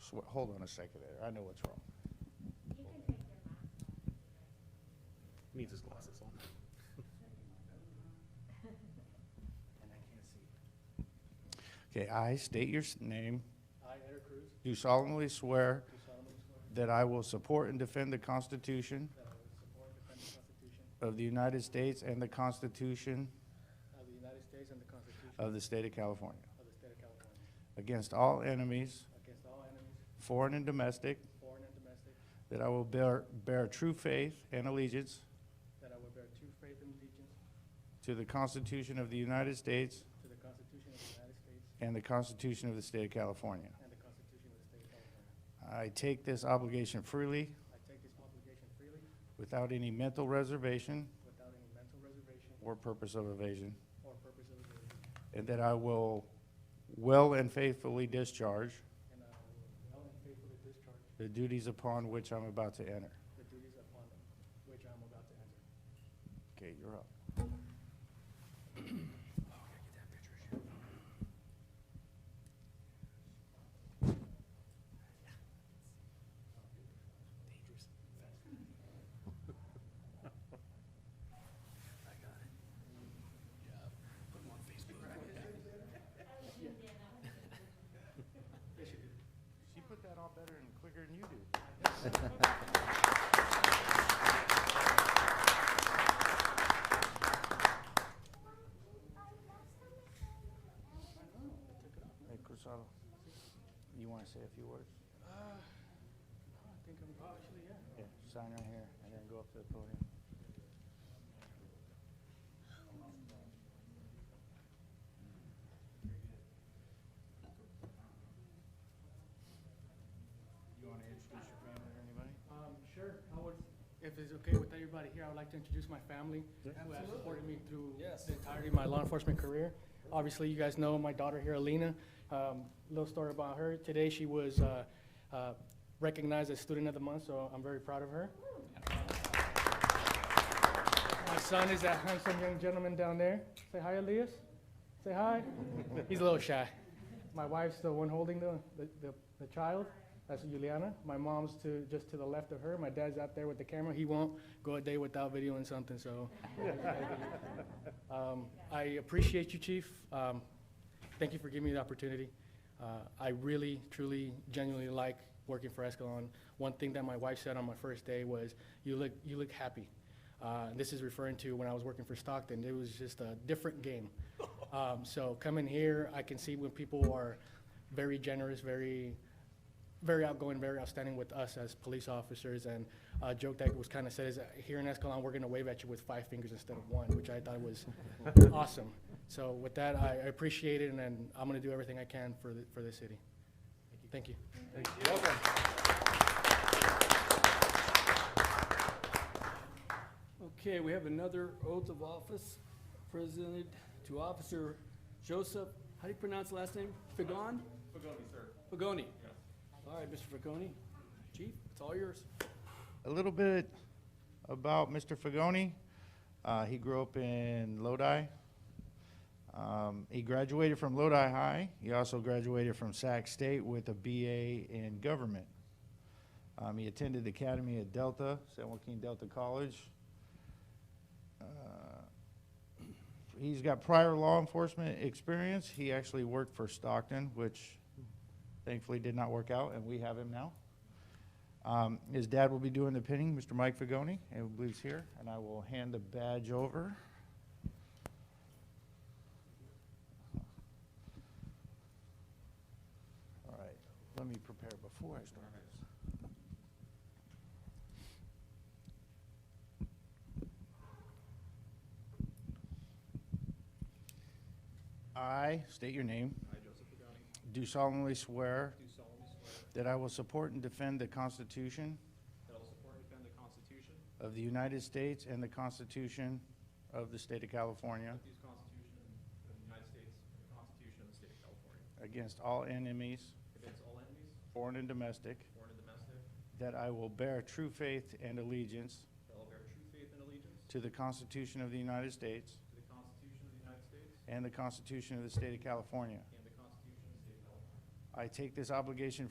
swe- hold on a second there, I know what's wrong. Needs his glasses on. Okay, I state your s- name, I, Eder Cruz, do solemnly swear do solemnly swear that I will support and defend the Constitution that I will support and defend the Constitution of the United States and the Constitution of the United States and the Constitution of the State of California, of the State of California, against all enemies, against all enemies, foreign and domestic, foreign and domestic, that I will bear, bear true faith and allegiance that I will bear true faith and allegiance to the Constitution of the United States to the Constitution of the United States and the Constitution of the State of California. and the Constitution of the State of California. I take this obligation freely, I take this obligation freely, without any mental reservation without any mental reservation or purpose of evasion, or purpose of evasion, and that I will well and faithfully discharge and I will well and faithfully discharge the duties upon which I'm about to enter. the duties upon which I am about to enter. Okay, you're up. She put that on better and quicker than you do. Hey, Cruzado, you want to say a few words? I think I'm, oh, actually, yeah. Yeah, sign right here and then go up to the podium. You want to introduce your family or anybody? Um, sure, I would, if it's okay with everybody here, I would like to introduce my family, who has supported me through the entirety of my law enforcement career. Obviously, you guys know my daughter here, Alina. Um, little story about her, today she was, uh, uh, recognized as Student of the Month, so I'm very proud of her. My son is that handsome young gentleman down there. Say hi, Elias. Say hi. He's a little shy. My wife's the one holding the, the, the, the child. That's Juliana. My mom's to just to the left of her. My dad's out there with the camera. He won't go a day without videoing something. So, um, I appreciate you, Chief. Um, thank you for giving me the opportunity. Uh, I really, truly, genuinely like working for Escalon. One thing that my wife said on my first day was, "You look, you look happy." Uh, this is referring to when I was working for Stockton. It was just a different game. Um, so coming here, I can see when people are very generous, very very outgoing, very outstanding with us as police officers. And a joke that was kind of said is, uh, here in Escalon, we're going to wave at you with five fingers instead of one, which I thought was awesome. So with that, I I appreciate it, and then I'm going to do everything I can for, the- for this city. Thank you. Okay, we have another oath of office presented to Officer Joseph, how do you pronounce the last name? Fagon? Fagoni, sir. Fagoni? All right, Mr. Fagoni. Chief, it's all yours. a little bit about Mr. Fagoni. Uh, he grew up in Lodi. Um, he graduated from Lodi High. He also graduated from Sac State with a BA in government. Um, he attended the Academy at Delta, San Joaquin Delta College. Uh, he's got prior law enforcement experience. He actually worked for Stockton, which thankfully did not work out, and we have him now. Um, His dad will be doing the pinning, Mr. Mike Fagoni, I believe he's here, and I will hand the badge over. All right, let me prepare before I start this. I state your name. I, Joseph Fagoni. Do solemnly swear Do solemnly swear that I will support and defend the Constitution that I will support and defend the Constitution of the United States and the Constitution of the State of California of these Constitution of the United States and the Constitution of the State of California against all enemies, against all enemies, foreign and domestic, foreign and domestic, that I will bear true faith and allegiance that I will bear true faith and allegiance to the Constitution of the United States to the Constitution of the United States and the Constitution of the State of California. and the Constitution of the State of California. I take this obligation